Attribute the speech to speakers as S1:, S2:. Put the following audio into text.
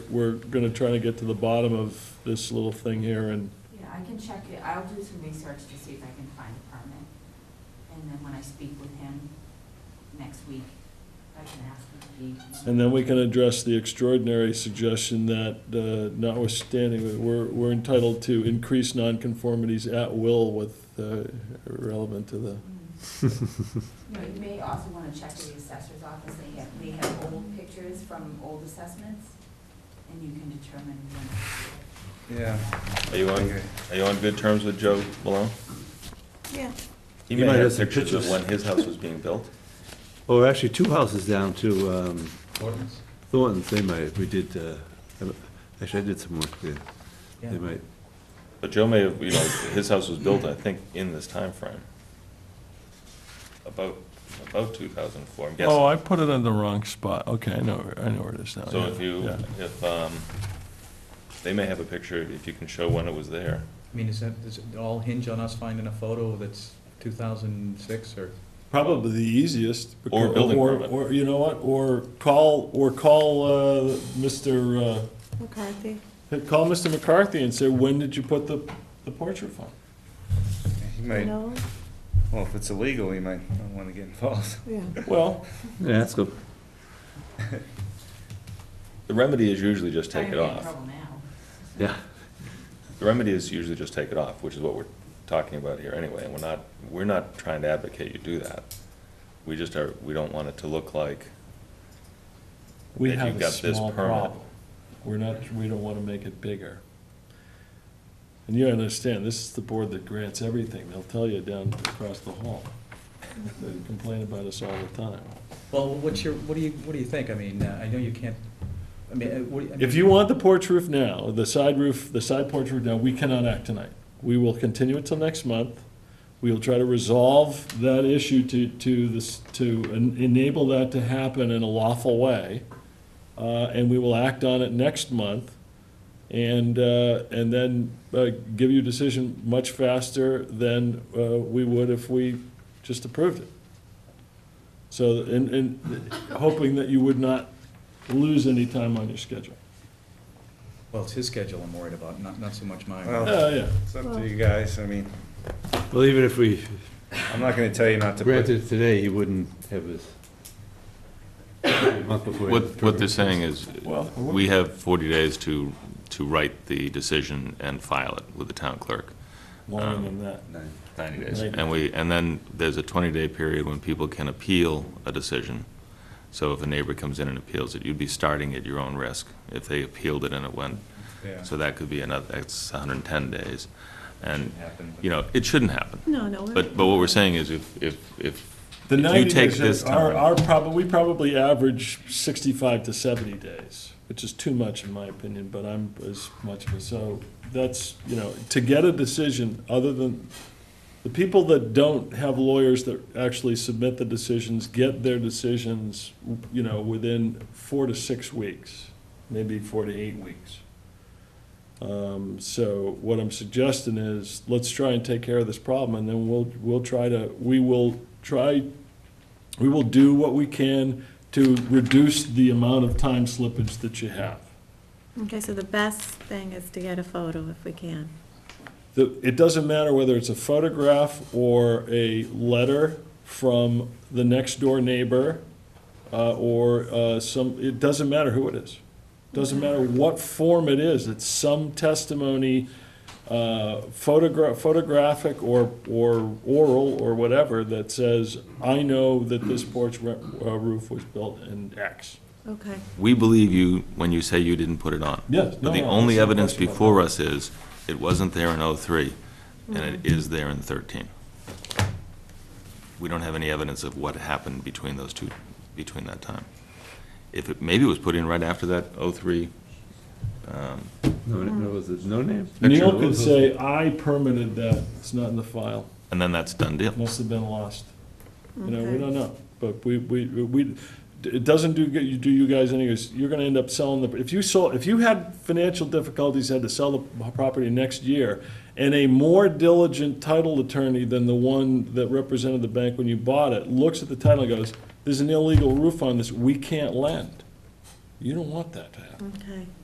S1: we're gonna try to get to the bottom of this little thing here and,
S2: Yeah, I can check it, I'll do some research to see if I can find a permit. And then when I speak with him next week, I can ask him if he.
S1: and then we can address the extraordinary suggestion that uh, notwithstanding, we're, we're entitled to increase nonconformities at will with, uh, relevant to the,
S2: Mm. You know, you may also want to check with the assessor's office, they have, they have old pictures from old assessments, and you can determine when.
S3: Yeah.
S4: Are you on,
S3: Okay.
S4: are you on good terms with Joe Malone?
S5: Yeah.
S4: He
S6: He
S4: may
S6: might have
S4: have
S6: some
S4: pictures of
S6: pictures.
S4: when his house was being built.
S6: Oh, actually, two houses down to um, Thornton's, they might, we did, uh, actually, I did some work there. They might,
S4: But Joe may have, you know, his house was built, I think, in this time frame, About, about two thousand four, I'm
S1: oh,
S4: guessing.
S1: I put it in the wrong spot, okay, I know, I know where it is
S6: Oh,
S1: now.
S4: So
S1: yeah,
S4: if you,
S1: yeah.
S4: if, um, they may have a picture, if you can show when it was there.
S3: I mean, is that, does it all hinge on us finding a photo that's two thousand six or?
S1: Probably the easiest.
S4: Or
S1: because-
S4: building
S1: or-
S4: permit.
S1: Or, you know what, or call, or call, uh, Mr.,
S5: McCarthy.
S1: uh, call Mr. McCarthy and say, when did you put the, the porch roof on?
S3: He
S5: No,
S3: well, if it's illegal, he might not wanna get involved.
S5: yeah.
S1: Well,
S6: yeah, let's go.
S4: The remedy is usually just
S2: Trying
S4: take
S2: to
S4: it
S2: get in
S4: off.
S2: trouble now.
S6: Yeah.
S4: The remedy is usually just take it off, which is what we're talking about here anyway, and we're not, we're not trying to advocate you do that. We just are, we don't want it to look like,
S1: we
S4: That
S1: have
S4: you've
S1: a
S4: got this
S1: small
S4: permit.
S1: problem. We're not, we don't wanna make it bigger. And you understand, this is the board that grants everything. They'll tell you down across the hall. They complain about us all the time.
S3: Well, what's your, what do you, what do you think? I mean, uh, I know you can't, I mean, uh, what, do you- I mean.
S1: If you want the porch roof now, the side roof, the side porch roof now, we cannot act tonight. We will continue it till next month. We will try to resolve that issue to, to this, to en- enable that to happen in a lawful way. Uh, and we will act on it next month and, uh, and then, uh, give you a decision much faster than, uh, we would if we just approved it. So, and, and hoping that you would not lose any time on your schedule.
S3: Well, it's his schedule I'm worried about, not, not so much mine.
S7: Well-
S1: Yeah, yeah.
S7: It's up to you guys, I mean,
S6: Well, even if we
S7: I'm not gonna tell you not to put,
S6: granted today, he wouldn't have his. month before he-
S4: What, what they're saying is,
S1: Well-
S4: we have 40 days to, to write the decision and file it with the town clerk.
S1: Longer than that.
S4: 90 days.
S1: Right.
S4: And we, and then there's a 20-day period when people can appeal a decision. So if a neighbor comes in and appeals it, you'd be starting at your own risk if they appealed it and it went.
S3: Yeah.
S4: So that could be another, that's 110 days. And,
S3: Happen, but-
S4: you know, it shouldn't happen.
S5: No, no. we're-
S4: But, but what we're saying is if, if, if
S1: The
S4: if you
S1: 90
S4: take
S1: days
S4: this
S1: is- are,
S4: time,
S1: are probably, we probably average 65 to 70 days, which is too much in my opinion, but I'm as much of a, so that's, you know, to get a decision other than, the people that don't have lawyers that actually submit the decisions, get their decisions, you know, within four to six weeks, maybe four to eight weeks. Um, So what I'm suggesting is, let's try and take care of this problem, and then we'll, we'll try to, we will try, we will do what we can to reduce the amount of time slippage that you have.
S5: Okay, so the best thing is to get a photo if we can.
S1: The, it doesn't matter whether it's a photograph or a letter from the next door neighbor, uh, or, uh, some, it doesn't matter who it is. Doesn't matter what form it is, it's some testimony, uh, photograph, photographic or, or oral or whatever that says, I know that this porch re- uh, roof was built in X.
S5: Okay.
S4: we believe you when you say you didn't put it on.
S1: Yes,
S4: But the
S1: no, no,
S4: only
S1: there's no
S4: evidence
S1: question about
S4: before us is, it wasn't there in '03, and it
S1: Mm-hmm.
S4: is there in '13. We don't have any evidence of what happened between those two, between that time. If it, maybe it was put in right after that um, '03,
S6: No, no, was it no name?
S1: Neil could say, I permitted that, it's not in the file.
S4: and then that's done deal.
S1: must have been lost. You know, we
S5: Okay.
S1: don't know, but we, we, we, it doesn't do, you do you guys any, good. you're gonna end up selling the, if you sold, if you had financial difficulties, had to sell the property next year, and a more diligent title attorney than the one that represented the bank when you bought it, looks at the title and goes, there's an illegal roof on this, we can't lend. You don't want that to happen.
S5: Okay.